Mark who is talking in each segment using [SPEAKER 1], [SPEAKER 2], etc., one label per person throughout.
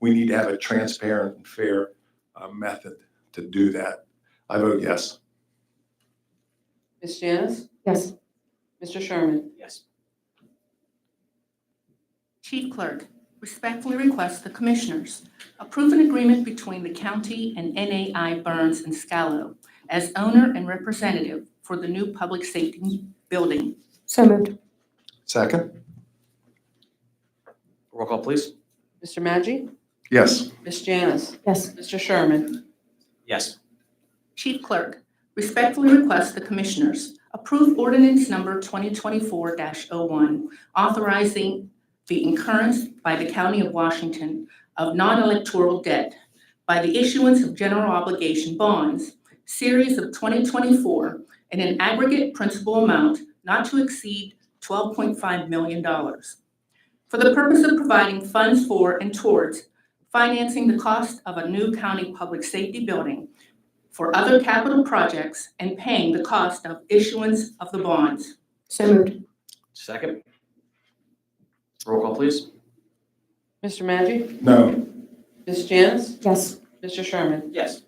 [SPEAKER 1] we need to have a transparent and fair uh, method to do that. I vote yes.
[SPEAKER 2] Ms. Janice?
[SPEAKER 3] Yes.
[SPEAKER 2] Mr. Sherman?
[SPEAKER 4] Yes.
[SPEAKER 5] Chief Clerk, respectfully request the Commissioners approve an agreement between the county and NAI Burns and Scalo as owner and representative for the new public safety building.
[SPEAKER 3] So moved.
[SPEAKER 1] Second?
[SPEAKER 4] Roll call, please.
[SPEAKER 2] Mr. Maggi?
[SPEAKER 1] Yes.
[SPEAKER 2] Ms. Janice?
[SPEAKER 3] Yes.
[SPEAKER 2] Mr. Sherman?
[SPEAKER 4] Yes.
[SPEAKER 5] Chief Clerk, respectfully request the Commissioners approve ordinance number 2024-01, authorizing the incurrence by the County of Washington of non-electoral debt by the issuance of general obligation bonds, series of 2024, in an aggregate principal amount not to exceed $12.5 million for the purpose of providing funds for and towards financing the cost of a new county public safety building for other capital projects and paying the cost of issuance of the bonds.
[SPEAKER 3] So moved.
[SPEAKER 4] Second. Roll call, please.
[SPEAKER 2] Mr. Maggi?
[SPEAKER 1] No.
[SPEAKER 2] Ms. Janice?
[SPEAKER 3] Yes.
[SPEAKER 2] Mr. Sherman?
[SPEAKER 4] Yes.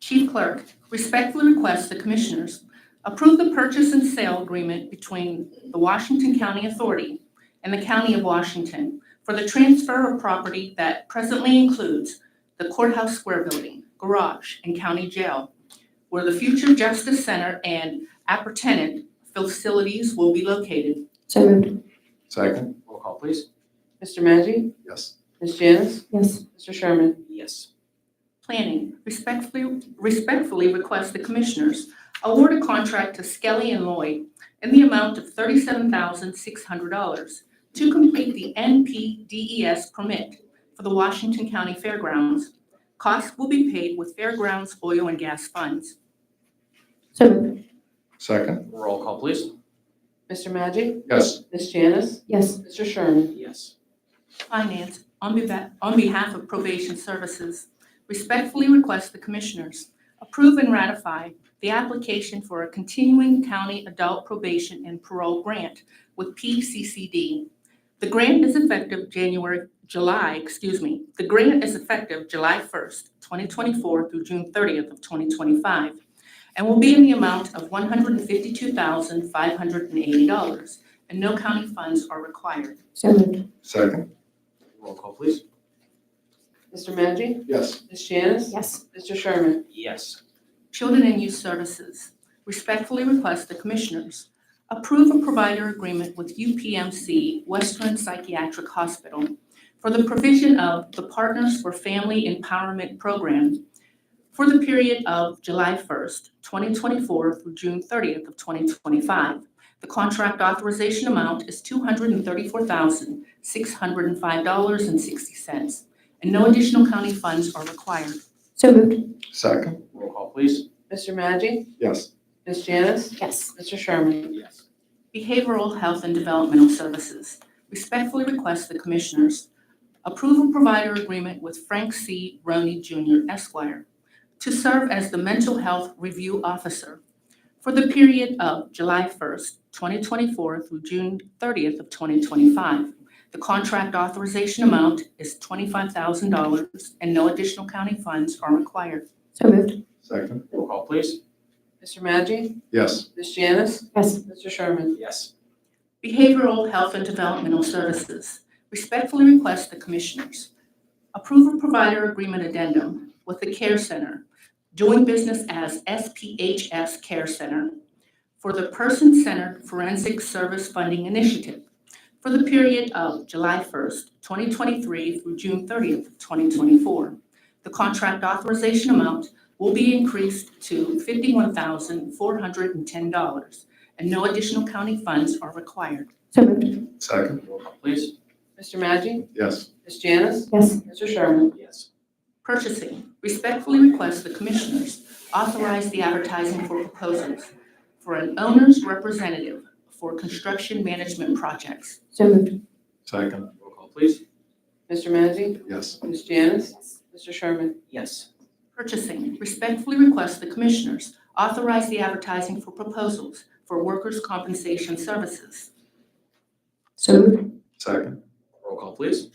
[SPEAKER 5] Chief Clerk, respectfully request the Commissioners approve the purchase and sale agreement between the Washington County Authority and the County of Washington for the transfer of property that presently includes the Courthouse Square Building, Garage, and County Jail, where the future Justice Center and appertenant facilities will be located.
[SPEAKER 3] So moved.
[SPEAKER 1] Second?
[SPEAKER 4] Roll call, please.
[SPEAKER 2] Mr. Maggi?
[SPEAKER 1] Yes.
[SPEAKER 2] Ms. Janice?
[SPEAKER 3] Yes.
[SPEAKER 2] Mr. Sherman?
[SPEAKER 4] Yes.
[SPEAKER 5] Planning respectfully, respectfully request the Commissioners award a contract to Skelly and Lloyd in the amount of thirty-seven thousand six hundred dollars to complete the NPDES E permit for the Washington County Fairgrounds. Costs will be paid with Fairgrounds oil and gas funds.
[SPEAKER 3] So moved.
[SPEAKER 1] Second?
[SPEAKER 4] Roll call, please.
[SPEAKER 2] Mr. Maggi?
[SPEAKER 1] Yes.
[SPEAKER 2] Ms. Janice?
[SPEAKER 3] Yes.
[SPEAKER 2] Mr. Sherman?
[SPEAKER 4] Yes.
[SPEAKER 5] Finance, on behalf, on behalf of Probation Services, respectfully request the Commissioners approve and ratify the application for a continuing county adult probation and parole grant with PCCD. The grant is effective January, July, excuse me, the grant is effective July 1st, 2024 through June 30th of 2025, and will be in the amount of $152,580, and no county funds are required.
[SPEAKER 3] So moved.
[SPEAKER 1] Second?
[SPEAKER 4] Roll call, please.
[SPEAKER 2] Mr. Maggi?
[SPEAKER 1] Yes.
[SPEAKER 2] Ms. Janice?
[SPEAKER 3] Yes.
[SPEAKER 2] Mr. Sherman?
[SPEAKER 4] Yes.
[SPEAKER 5] Children and Youth Services respectfully request the Commissioners approve a provider agreement with UPMC Western Psychiatric Hospital for the provision of the Partners for Family Empowerment Program for the period of July 1st, 2024 through June 30th of 2025. The contract authorization amount is $234,605.60, and no additional county funds are required.
[SPEAKER 3] So moved.
[SPEAKER 1] Second?
[SPEAKER 4] Roll call, please.
[SPEAKER 2] Mr. Maggi?
[SPEAKER 1] Yes.
[SPEAKER 2] Ms. Janice?
[SPEAKER 3] Yes.
[SPEAKER 2] Mr. Sherman?
[SPEAKER 4] Yes.
[SPEAKER 5] Behavioral Health and Developmental Services respectfully request the Commissioners approve a provider agreement with Frank C. Roney Jr. Esquire to serve as the Mental Health Review Officer for the period of July 1st, 2024 through June 30th of 2025. The contract authorization amount is $25,000 and no additional county funds are required.
[SPEAKER 3] So moved.
[SPEAKER 1] Second?
[SPEAKER 4] Roll call, please.
[SPEAKER 2] Mr. Maggi?
[SPEAKER 1] Yes.
[SPEAKER 2] Ms. Janice?
[SPEAKER 3] Yes.
[SPEAKER 2] Mr. Sherman?
[SPEAKER 4] Yes.
[SPEAKER 5] Behavioral Health and Developmental Services respectfully request the Commissioners approve a provider agreement addendum with the Care Center, doing business as SPHS Care Center, for the Person-Centered Forensic Service Funding Initiative for the period of July 1st, 2023 through June 30th, of 2024. The contract authorization amount will be increased to $51,410 and no additional county funds are required.
[SPEAKER 3] So moved.
[SPEAKER 1] Second?
[SPEAKER 4] Roll call, please.
[SPEAKER 2] Mr. Maggi?
[SPEAKER 1] Yes.
[SPEAKER 2] Ms. Janice?
[SPEAKER 3] Yes.
[SPEAKER 2] Mr. Sherman?
[SPEAKER 4] Yes.
[SPEAKER 5] Purchasing, respectfully request the Commissioners authorize the advertising for proposals for an owner's representative for construction management projects.
[SPEAKER 3] So moved.
[SPEAKER 1] Second?
[SPEAKER 4] Roll call, please.
[SPEAKER 2] Mr. Maggi?
[SPEAKER 1] Yes.
[SPEAKER 2] Ms. Janice? Mr. Sherman?
[SPEAKER 4] Yes.
[SPEAKER 5] Purchasing, respectfully request the Commissioners authorize the advertising for proposals for workers' compensation services.
[SPEAKER 3] So moved.
[SPEAKER 1] Second?
[SPEAKER 4] Roll call, please.